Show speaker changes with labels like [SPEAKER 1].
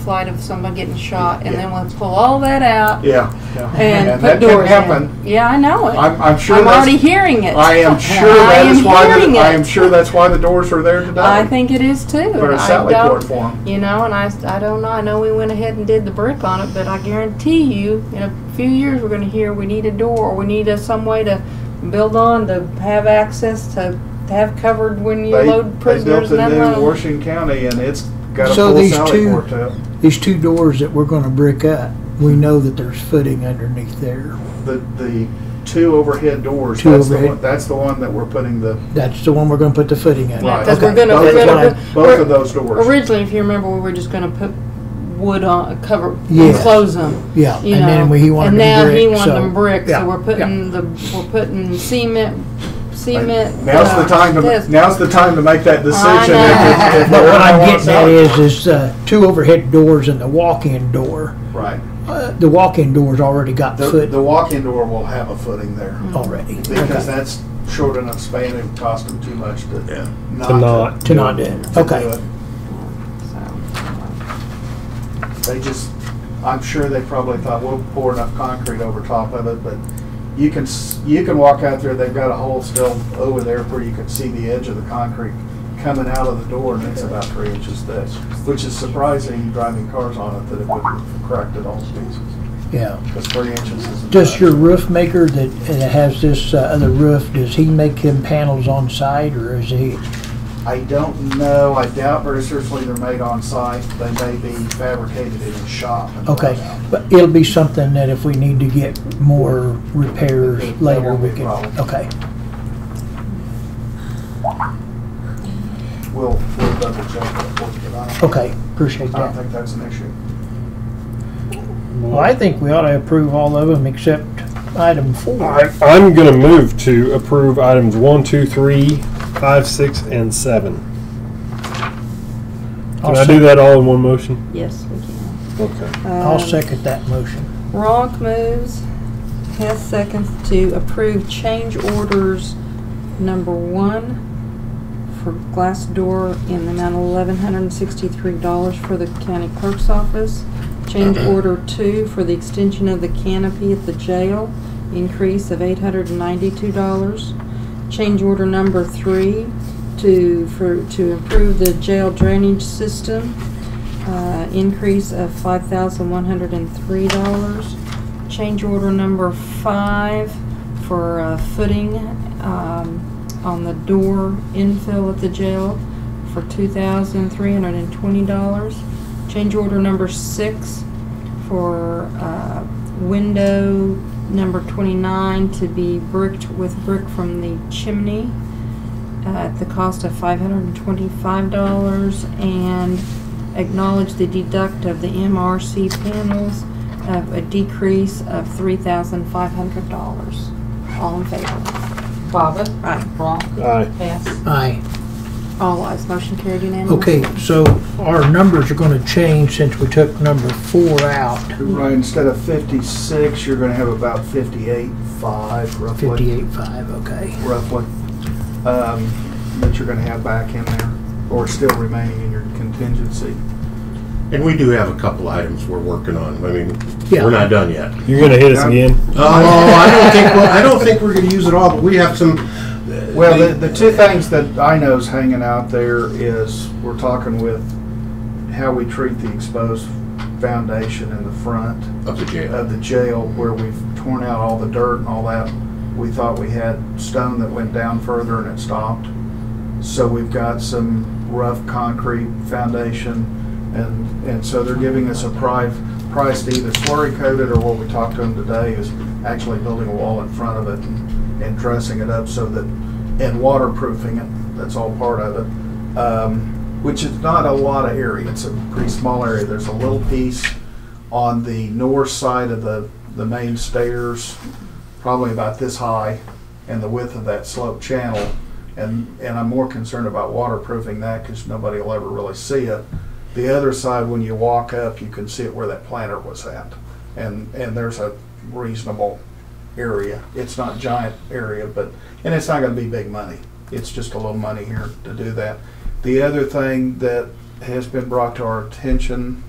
[SPEAKER 1] flight of someone getting shot, and
[SPEAKER 2] Yeah.
[SPEAKER 1] then we'll pull all that out
[SPEAKER 2] Yeah, yeah.
[SPEAKER 1] and, put
[SPEAKER 2] that
[SPEAKER 1] doors
[SPEAKER 2] can
[SPEAKER 1] in.
[SPEAKER 2] happen.
[SPEAKER 1] Yeah, I know it.
[SPEAKER 2] I'm, I'm sure
[SPEAKER 1] I'm
[SPEAKER 2] that's,
[SPEAKER 1] already hearing it.
[SPEAKER 2] I am sure
[SPEAKER 1] I
[SPEAKER 2] that
[SPEAKER 1] am
[SPEAKER 2] is why,
[SPEAKER 1] hearing
[SPEAKER 2] the- I
[SPEAKER 1] it.
[SPEAKER 2] am sure that's why the doors are there today.
[SPEAKER 1] I think it is too.
[SPEAKER 2] Put
[SPEAKER 1] and
[SPEAKER 2] a
[SPEAKER 1] I
[SPEAKER 2] Sally
[SPEAKER 1] don't-
[SPEAKER 2] board for 'em.
[SPEAKER 1] You know, and I, I don't know. I know we went ahead and did the brick on it, but I guarantee you, in a few years, we're going to hear we need a door or we need a, some way to build on to have access to, to have covered when you
[SPEAKER 2] They,
[SPEAKER 1] load
[SPEAKER 2] they built
[SPEAKER 1] prisoners and
[SPEAKER 2] a new
[SPEAKER 1] unload.
[SPEAKER 2] Washington County and it's got a
[SPEAKER 3] So
[SPEAKER 2] full
[SPEAKER 3] these
[SPEAKER 2] Sally
[SPEAKER 3] two-
[SPEAKER 2] board to it.
[SPEAKER 3] These two doors that we're gonna brick up, we know that there's footing underneath there.
[SPEAKER 2] The, the two overhead doors,
[SPEAKER 3] Two
[SPEAKER 2] that's the
[SPEAKER 3] overhead.
[SPEAKER 2] one, that's the one that we're putting the,
[SPEAKER 3] That's the one we're gonna put the footing in.
[SPEAKER 2] Right.
[SPEAKER 1] Because we're
[SPEAKER 3] Okay.
[SPEAKER 1] going to,
[SPEAKER 2] Both
[SPEAKER 1] we're
[SPEAKER 3] That's
[SPEAKER 1] going
[SPEAKER 3] fine.
[SPEAKER 1] to,
[SPEAKER 2] both of those doors.
[SPEAKER 1] Originally, if you remember, we were just going to put wood on, cover,
[SPEAKER 3] Yes.
[SPEAKER 1] close them.
[SPEAKER 3] Yeah,
[SPEAKER 1] you
[SPEAKER 3] and then
[SPEAKER 1] know,
[SPEAKER 3] we- he wanted
[SPEAKER 1] and now
[SPEAKER 3] them brick,
[SPEAKER 1] he wanted
[SPEAKER 3] so-
[SPEAKER 1] them brick,
[SPEAKER 3] Yeah,
[SPEAKER 1] so we're putting the we're putting cement cement.
[SPEAKER 2] Now's the
[SPEAKER 1] uh,
[SPEAKER 2] time
[SPEAKER 1] this.
[SPEAKER 2] to, now's the time to make that decision.
[SPEAKER 1] know.
[SPEAKER 2] if- if
[SPEAKER 3] But what
[SPEAKER 2] I
[SPEAKER 3] I'm
[SPEAKER 2] want
[SPEAKER 3] getting at
[SPEAKER 2] Sally-
[SPEAKER 3] is, is, uh, two overhead doors and the walk-in door.
[SPEAKER 2] Right.
[SPEAKER 3] Uh, The walk-in door's already got
[SPEAKER 2] The, the
[SPEAKER 3] foot
[SPEAKER 2] walk-in door will have a footing there.
[SPEAKER 3] already.
[SPEAKER 2] Because that's short enough span, it would cost them too much to not.
[SPEAKER 4] To not.
[SPEAKER 3] To not do
[SPEAKER 2] to
[SPEAKER 3] it,
[SPEAKER 2] do
[SPEAKER 3] okay.
[SPEAKER 2] it.
[SPEAKER 1] So,
[SPEAKER 2] They just, I'm sure they probably thought, we'll pour enough concrete over top of it, but you can, s- you can walk out there, they've got a hole still over there where you can see the edge of the concrete coming out of the door, and it's about three inches thick, which is surprising, driving cars on it, that it would crack at all pieces,
[SPEAKER 3] Yeah.
[SPEAKER 2] because three inches isn't.
[SPEAKER 3] Does
[SPEAKER 2] much.
[SPEAKER 3] your roof maker that uh, has this uh, other roof, does he make him panels on site or is he?
[SPEAKER 2] I don't know. I doubt very seriously they're made on site. They may be fabricated in a shop. and
[SPEAKER 3] Okay,
[SPEAKER 2] brought out.
[SPEAKER 3] but it'll be something that if we need to get more repairs
[SPEAKER 2] That
[SPEAKER 3] later,
[SPEAKER 2] won't
[SPEAKER 3] we
[SPEAKER 2] be a
[SPEAKER 3] can,
[SPEAKER 2] problem.
[SPEAKER 3] okay.
[SPEAKER 2] We'll, we'll double check that for you, but I don't-
[SPEAKER 3] Okay, appreciate
[SPEAKER 2] I don't
[SPEAKER 3] that.
[SPEAKER 2] think that's an issue.
[SPEAKER 3] Well, I think we ought to approve all of them except item
[SPEAKER 4] I,
[SPEAKER 3] four.
[SPEAKER 4] I'm gonna move to approve items one, two, three, five, six, and seven. Can I do that all in one motion?
[SPEAKER 1] yes, we can.
[SPEAKER 4] Okay.
[SPEAKER 1] Um,
[SPEAKER 3] I'll second that motion.
[SPEAKER 1] Ronk moves. Hess seconds to approve change orders number one for glass door in the amount of eleven hundred and sixty-three dollars for the county clerk's office. Change order two for the extension of the canopy at the jail, increase of eight hundred and ninety-two dollars. Change order number three to, for, to improve the jail drainage system, uh, increase of five thousand one hundred and three dollars. Change order number five for uh, footing um, on the door infill at the jail for two thousand three hundred and twenty dollars. Change order number six for uh, window number twenty-nine to be bricked with brick from the chimney at the cost of five hundred and twenty-five dollars and acknowledge the deduct of the MRC panels of a decrease of three thousand five hundred dollars. All in favor?
[SPEAKER 5] Bobbit,
[SPEAKER 1] Right.
[SPEAKER 5] Ronk,
[SPEAKER 4] Aye.
[SPEAKER 5] Hess,
[SPEAKER 3] Aye.
[SPEAKER 1] All ayes, motion carried unanimously.
[SPEAKER 3] Okay, so our numbers are gonna change since we took number four out,
[SPEAKER 2] Right, instead of fifty-six, you're gonna have about fifty-eight, five roughly.
[SPEAKER 3] fifty-eight-five, okay.
[SPEAKER 2] Roughly, um, that you're gonna have back in there, or still remaining in your contingency.
[SPEAKER 6] And we do have a couple items we're working on. I mean,
[SPEAKER 3] Yeah.
[SPEAKER 6] we're not done yet.
[SPEAKER 4] You're gonna hit us again?
[SPEAKER 6] Oh, I don't think, well, I don't think we're gonna use it all, but we have some.
[SPEAKER 2] Well, the, the two things that I know is hanging out there is, we're talking with how we treat the exposed foundation in the front
[SPEAKER 6] Up to jail.
[SPEAKER 2] of the jail where we've torn out all the dirt and all that. We thought we had stone that went down further and it stopped. So we've got some rough concrete foundation and, and so they're giving us a price, price to either slurry coat it or what we talked to them today is actually building a wall in front of it and, and dressing it up so that, and waterproofing it, that's all part of it. Um, which is not a lot of area, it's a pretty small area. There's a little piece on the north side of the, the main stairs, probably about this high, and the width of that slope channel. And, and I'm more concerned about waterproofing that because nobody will ever really see it. The other side, when you walk up, you can see it where that planter was at. And, and there's a reasonable area. It's not giant area, but, and it's not gonna be big money. It's just a little money here to do that. The other thing that has been brought to our attention